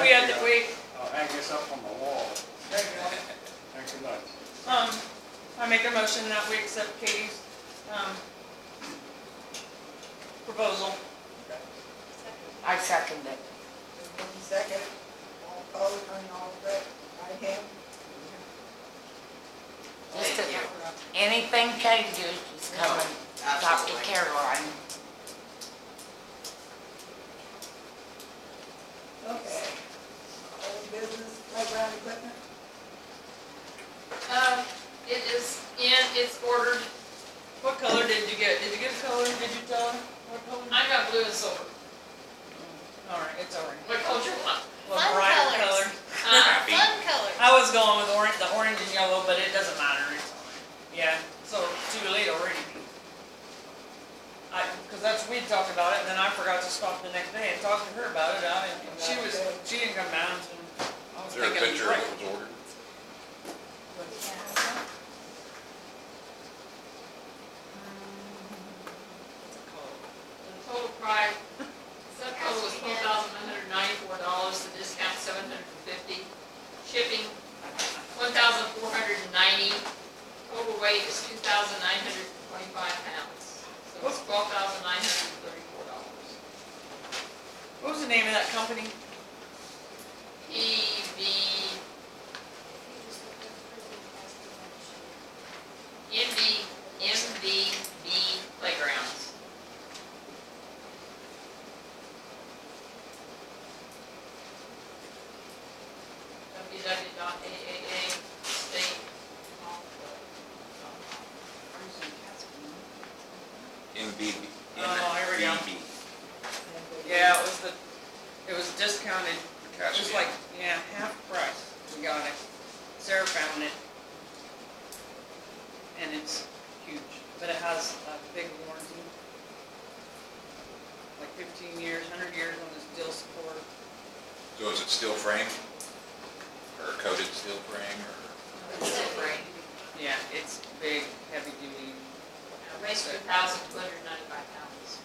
We have to, we, I'll hang this up on the wall. Thank you. Thanks a lot. um, I make a motion that we accept Katie's, um, proposal. I second it. One second, all opposed, and all in favor, right hand. Just a- Anything Katie does, just come and talk to Absolutely. Caroline. Okay. Old business, playground equipment? Um, it is in, it's ordered, What color did you get? Did you get a color? Did you tell her what color? I got blue and silver, All right, it's orange. what color do you want? Well, Fun bright color. colors. Uh, Fun colors. I was going with orange, the orange and yellow, but it doesn't matter. It's orange. Yeah, so too late already. I, cause that's, we talked about it and then I forgot to stop the next day and talk to her about it. I didn't, she was, she didn't come down and I was Is there a thinking. picture right. of what was ordered? the total price, subtotal was twelve thousand one hundred ninety-four dollars, the discount seven hundred and fifty. Shipping, one thousand four hundred and ninety, total weight is two thousand nine hundred and twenty-five pounds. So it's twelve thousand nine hundred and thirty-four dollars. What was the name of that company? PV, MV, MVB playgrounds. www.aaa.state.gov. MBB. Oh, here we go. MBB, Yeah, it was the, it was discounted, it was Cascade. like, yeah, half price. We got it. Sarah found it. And it's huge, but it has a big warranty. Like fifteen years, hundred years on this steel support. So is it steel frame? Or coated steel frame or? Yeah, it's big, heavy duty. Raised to thousand two hundred ninety-five pounds,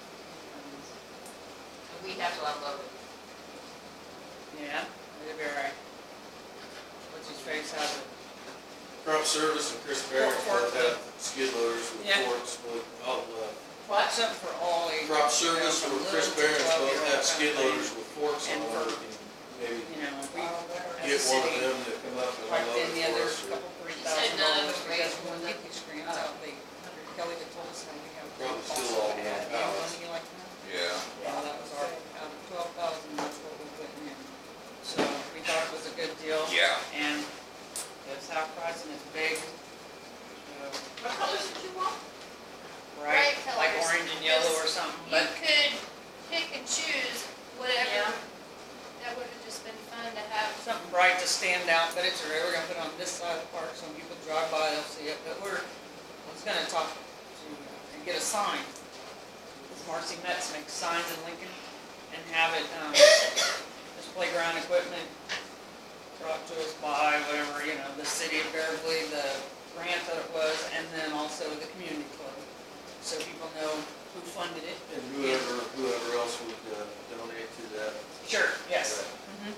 and we have to upload it. Yeah, it'll be all right. What's his face has it. Crop Service and Chris Barrett both have skid loaders with Yeah. forks, with, oh, uh, What? Something for all ages. Crop Service or Chris Barrett both have skid loaders with forks on And order. fork. Maybe You know, we, All in favor? as a get one of city, them to come up and Like unload then the it other for us. couple, three He said thousand none of dollars, them because raised when more the than- screens out, they, Kelly had told us, I think, how. Probably still all Yeah, one you know, house. you like that? Yeah. Yeah, that was our, out of twelve thousand, that's what we put in. So we thought it was a good deal. Yeah. And it's half price and it's big. so, What colors did you want? Bright, Bright like colors. orange and yellow or something, You but could pick and choose Yeah. whatever, that would have just been fun to have. something bright to stand out, but it's, we're gonna put it on this side of the park, so when people drive by, they'll see it, but we're, I was gonna talk to, and get a sign. Marcy Metz makes signs in Lincoln, and have it, um, this playground equipment brought to us by whatever, you know, the city of Beverly, the grant that it was, and then also the community club. So people know who funded it. And whoever, whoever else would uh, donate to that. Sure, yes. Right. Mhm.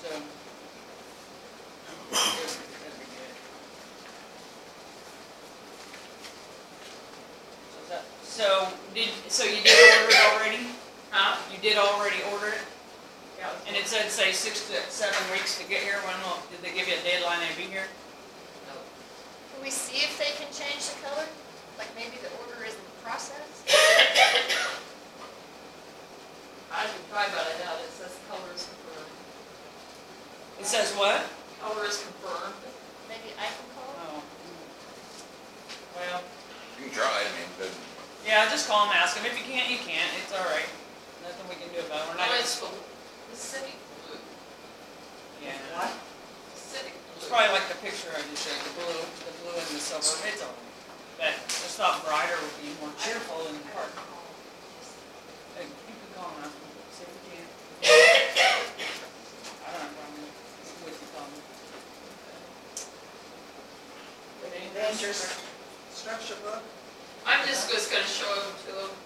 So. that'd be good. So is that- So, did, so you did order it already? Huh? You did already order it? Yeah. And it said, say, six to seven weeks to get here, when will, did they give you a deadline to be here? No. Can we see if they can change the color? Like maybe the order isn't processed? I should try, but I doubt it says color is confirmed. It says what? Color is confirmed. Maybe I can call? Oh. Well, You can try, I mean, but yeah, just call and ask them, if you can't, you can't, it's all right, nothing we can do about it, we're not. Oh, it's blue. Pacific blue. Yeah. Pacific It's blue. probably like the picture I just showed, the blue, the blue and the silver, it's all, but it's not brighter, would be more cheerful in the park. Hey, You can call and ask them, see if you can. I don't have a problem with you calling. The Endangered structure book, I'm just, just gonna show them to them